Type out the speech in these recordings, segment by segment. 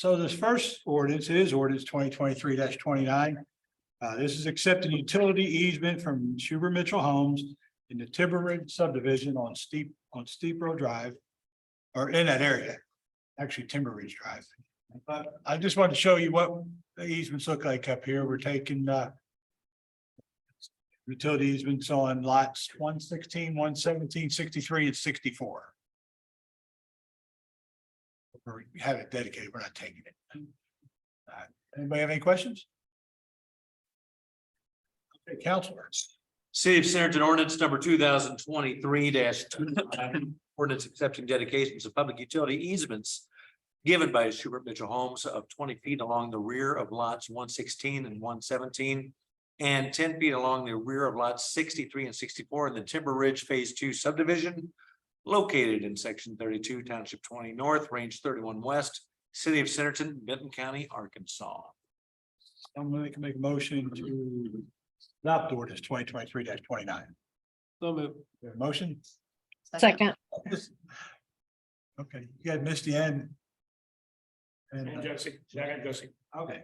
So this first ordinance is ordinance twenty twenty-three twenty-nine. Uh, this is accepting utility easement from Schubert Mitchell Homes in the Timberridge subdivision on steep, on Steep Road Drive. Or in that area, actually Timber Ridge Drive. But I just wanted to show you what the easements look like up here. We're taking, uh. Utility easements on lots 116, 117, 63, and sixty-four. Or we have it dedicated, we're not taking it. Uh, Anybody have any questions? Okay, counselors, City of Centerton ordinance number two thousand twenty-three dash ordinance accepting dedications of public utility easements given by Schubert Mitchell Homes of twenty feet along the rear of lots one sixteen and one seventeen and ten feet along the rear of lots sixty-three and sixty-four in the Timber Ridge Phase Two subdivision located in section thirty-two, township twenty north, range thirty-one west, city of Centerton, Benton County, Arkansas. someone that can make a motion to adopt ordinance twenty twenty-three twenty-nine. Your motion? Second, Okay, you had Misty and. And And, uh, Josie, Jack Josie, okay,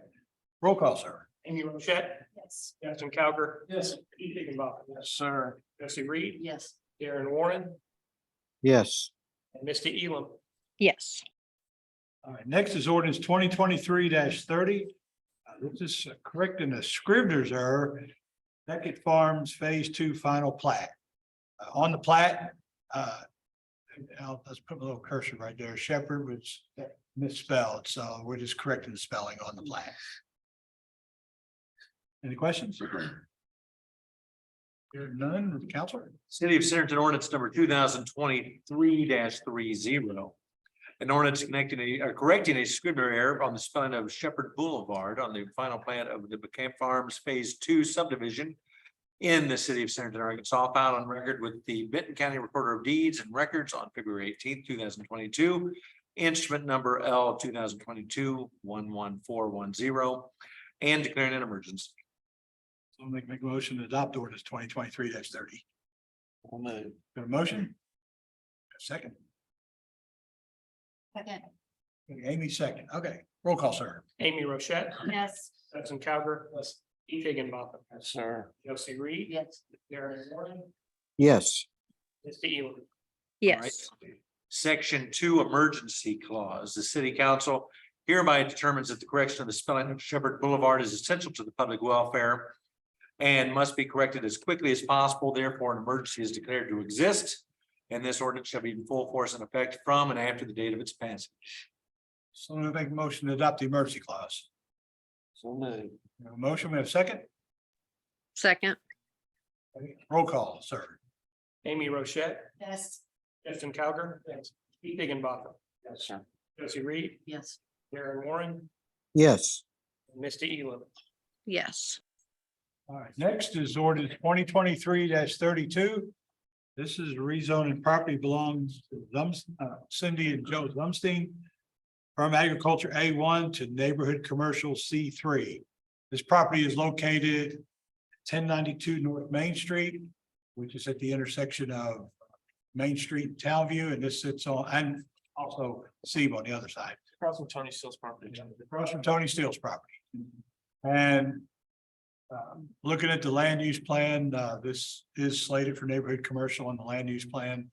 roll call, sir. Amy Rochette, Yes. Justin Cowger. Yes. Pete Higginbotham, Yes, sir. Josie Reed, Yes. Darren Warren, yes, and Misty Elam. Yes. All right, next is ordinance twenty twenty-three thirty. Uh, This is correcting a scrivener's error. Beckett Farms Phase Two Final Plat. Uh, On the plat, uh, I'll, let's put a little cursor right there. Shepherd was misspelled, so we're just correcting the spelling on the plat. Any questions? Here none, Counselor? City of Centerton ordinance number two thousand twenty-three three zero. An ordinance connecting a, uh, correcting a scrivener error on the spelling of Shepherd Boulevard on the final plan of the Camp Farms Phase Two subdivision. In the city of Centerton, Arkansas, filed on record with the Benton County Recorder of Deeds and Records on February eighteenth, two thousand twenty-two. Instrument number L 2022 11410 and declaring an emergency. I'll make, make a motion to adopt ordinance twenty twenty-three thirty. Got a motion? A Second, Second, Amy second, okay, roll call, sir. Amy Rochette, yes. Justin Cowger. Yes. Pete Higginbotham, Sir. Josie Reed, Yes. Darren Warren, yes, Misty Elam. Yes. Alright. Section two, emergency clause, the city council hereby determines that the correction of the spelling of Shepherd Boulevard is essential to the public welfare. And must be corrected as quickly as possible, therefore an emergency is declared to exist. And this ordinance shall be in full force and effect from and after the date of its passage. So I'm gonna make a motion to adopt the emergency clause. So We have a Motion, we have a second, Second, roll call, sir. Amy Rochette, Yes. Justin Cowger. Yes. Pete Higginbotham, Yes, sir. Josie Reed, Yes. Darren Warren, yes, and Misty Elam. yes. All right, next is ordinance twenty twenty-three thirty-two. This is rezoning property belongs to Lums- uh, Cindy and Joe Lumstein from agriculture A one to neighborhood commercial C three. This property is located ten ninety-two North Main Street, which is at the intersection of Main Street, and Townview, and this sits on, and also Sebe on the other side Across from Tony Steele's property. across from Tony Steele's property. And um, looking at the land use plan, uh, this is slated for neighborhood commercial on the land use plan.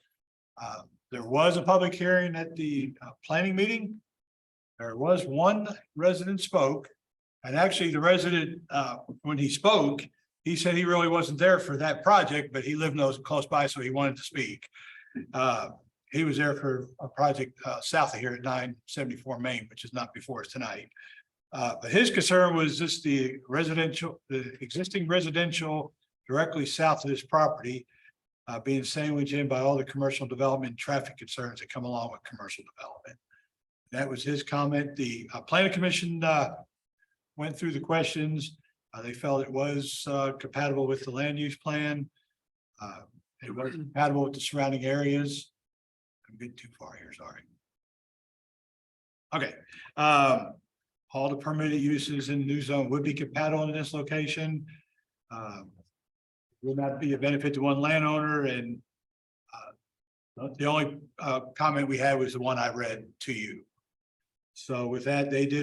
Uh, There was a public hearing at the uh, planning meeting. There was one resident spoke, and actually the resident, uh, when he spoke, he said he really wasn't there for that project, but he lived those close by, so he wanted to speak. Uh, he was there for a project uh south of here at nine seventy-four Main, which is not before us tonight. Uh, but his concern was just the residential, the existing residential directly south of this property. Uh, being sandwiched in by all the commercial development, and traffic concerns that come along with commercial development. That was his comment. The uh planning commission uh went through the questions. Uh, they felt it was uh compatible with the land use plan. Uh, it was compatible with the surrounding areas. I'm getting too far here, sorry. Okay, um, all the permitted uses in the new zone would be compatible in this location. Um, Will not be a benefit to one landowner and uh, the only uh, comment we had was the one I read to you. So with that, they did